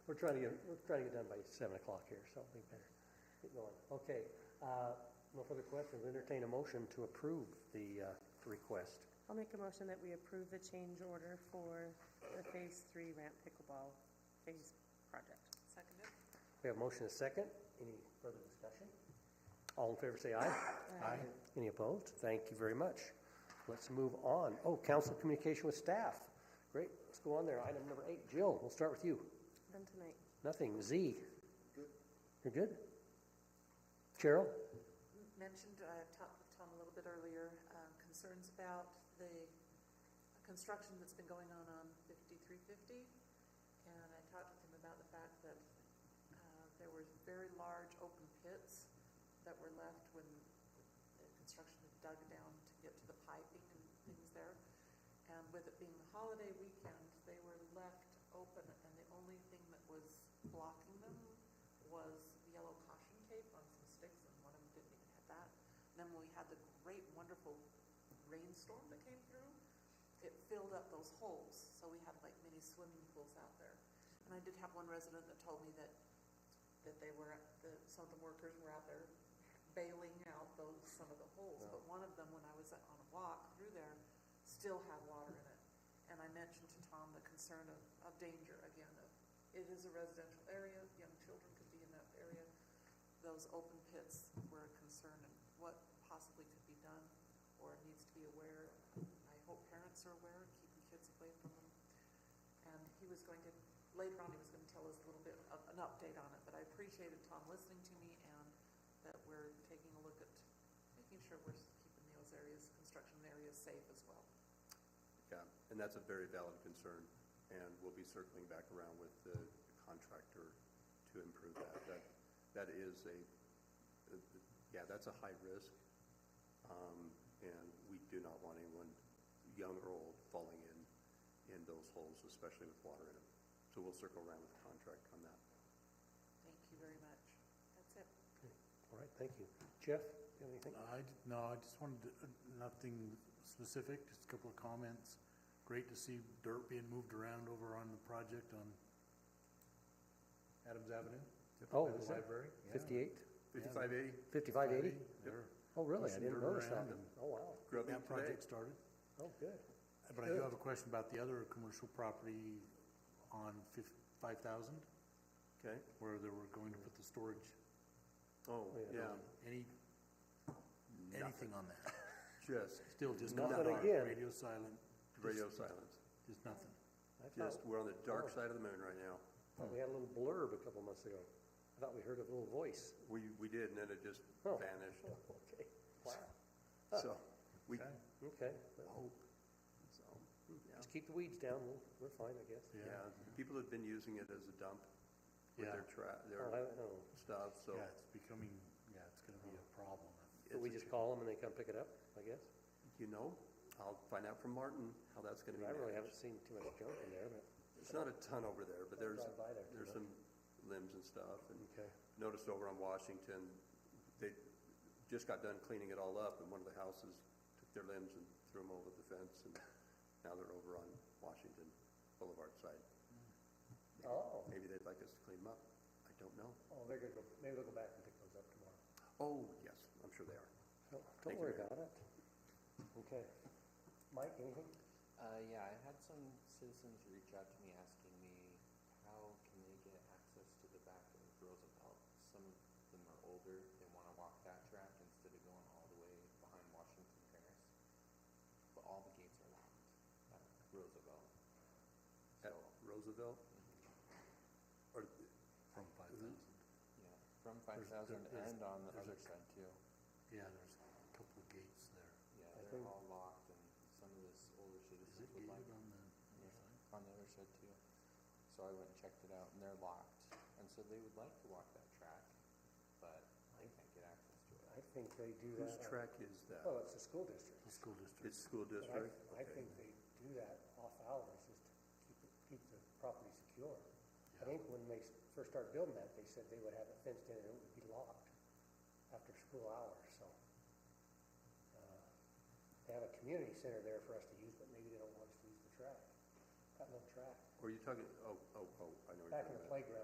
We're trying to get, we're trying to get done by seven o'clock here, so we better get going. Okay, uh, no further questions, entertain a motion to approve the, uh, request. I'll make a motion that we approve the change order for the Phase Three ramp pickleball phase project. Seconded? We have a motion and a second, any further discussion? All in favor say aye. Aye. Any opposed? Thank you very much. Let's move on. Oh, council communication with staff. Great, let's go on there, item number eight, Jill, we'll start with you. Done tonight. Nothing, Z. You're good? Cheryl? Mentioned, I talked with Tom a little bit earlier, um, concerns about the construction that's been going on on fifty-three fifty. And I talked with him about the fact that uh, there were very large open pits that were left when the construction had dug down to get to the piping and things there. And with it being the holiday weekend, they were left open, and the only thing that was blocking them was yellow caution tape on some sticks, and one of them didn't even have that. And then when we had the great, wonderful rainstorm that came through, it filled up those holes, so we had like mini swimming pools out there. And I did have one resident that told me that, that they were, that some of the workers were out there bailing out those, some of the holes, but one of them, when I was on a walk through there, still had water in it. And I mentioned to Tom the concern of, of danger, again, of, it is a residential area, young children could be in that area. Those open pits were a concern and what possibly could be done or needs to be aware. I hope parents are aware, keeping kids away from them. And he was going to, later on, he was gonna tell us a little bit of an update on it, but I appreciated Tom listening to me and that we're taking a look at making sure we're keeping those areas, construction areas safe as well. Yeah, and that's a very valid concern, and we'll be circling back around with the contractor to improve that. That, that is a, yeah, that's a high risk, um, and we do not want anyone, young or old, falling in, in those holes, especially with water in them. So we'll circle around with the contractor on that. Thank you very much. That's it. All right, thank you. Jeff, you have anything? I, d- no, I just wanted, to- nothing specific, just a couple of comments. Great to see dirt being moved around over on the project on Adams Avenue. Oh, at the is that library. Yeah. Fifty-eight? Fifty-five eighty, Fifty-five eighty? There. Oh, really? I Some didn't dirt notice that. around and- Oh, wow. Grub That today. project started. Oh, good. But I do have a question about the other commercial property on fif- five thousand, Okay, where they were going to put the storage. oh, Oh, yeah. yeah, Any, anything on that? just Still just Nothing not dark, again. radio silent. just- radio silence. Just nothing. I thought, Just, we're on the dark Oh. side of the moon right now. thought we had a little blurb a couple months ago. I thought we heard a little voice. We, we did, and then it just Oh. vanished. Oh, Okay. Wow. So, we, Okay. Okay. Well, hope, so, yeah. Just keep the weeds down. We'll, we're fine, I guess. Yeah. Yeah, people have been using it as a dump with Yeah. their tra, Oh, I their don't know. stuff, so. Yeah, it's becoming, yeah, it's gonna be a problem. But we it's a just ch- call them and they come pick it up, I guess. You know, I'll find out from Martin how that's gonna be I really haven't managed. seen too much junk in there, but, There's not a ton over there, but I there's, drive by there too there's some limbs and stuff, and okay. noticed over on Washington, they just got done cleaning it all up, and one of the houses took their limbs and threw them over the fence, and now they're over on Washington Boulevard side. Oh. Maybe they'd like us to clean them up, I don't know. Oh, they're gonna go, maybe they'll go back and pick those up tomorrow. Oh, yes, I'm sure they are. Don't- Don't Thank you, worry Mayor. about it. Okay. Mike, anything? Uh, yeah, I had some citizens reach out to me asking me how can they get access to the back of Roosevelt. Some of them are older, they want to walk that track instead of going all the way behind Washington Terrace. But all the gates are locked at Roosevelt. At Roosevelt? Or, From five thousand. Yeah, from There's- five thousand there- there's- and on the there's other a- side too. Yeah, there's a couple of gates there. Yeah, I they're think- all locked and some of this older Is citizens it would gated like. on the Yeah, other side? on the other side too. So I went and checked it out, and they're locked, and so they would like to walk that track, but they can't get access to it. I think they do that. whose on- track is that? Well, it's the school district. The school district. It's school But Oh, I- district? I Okay. think they do that off hours just to keep, it- keep the property secure. I Yeah. think when they s- first started building that, they said they would have it fenced in and it would be locked after school hours, so. uh, They have a community center there for us to use, but maybe they don't want us to use the track. Got no track. Or you talking, oh, oh, oh, I know what you're Back talking in about. the playground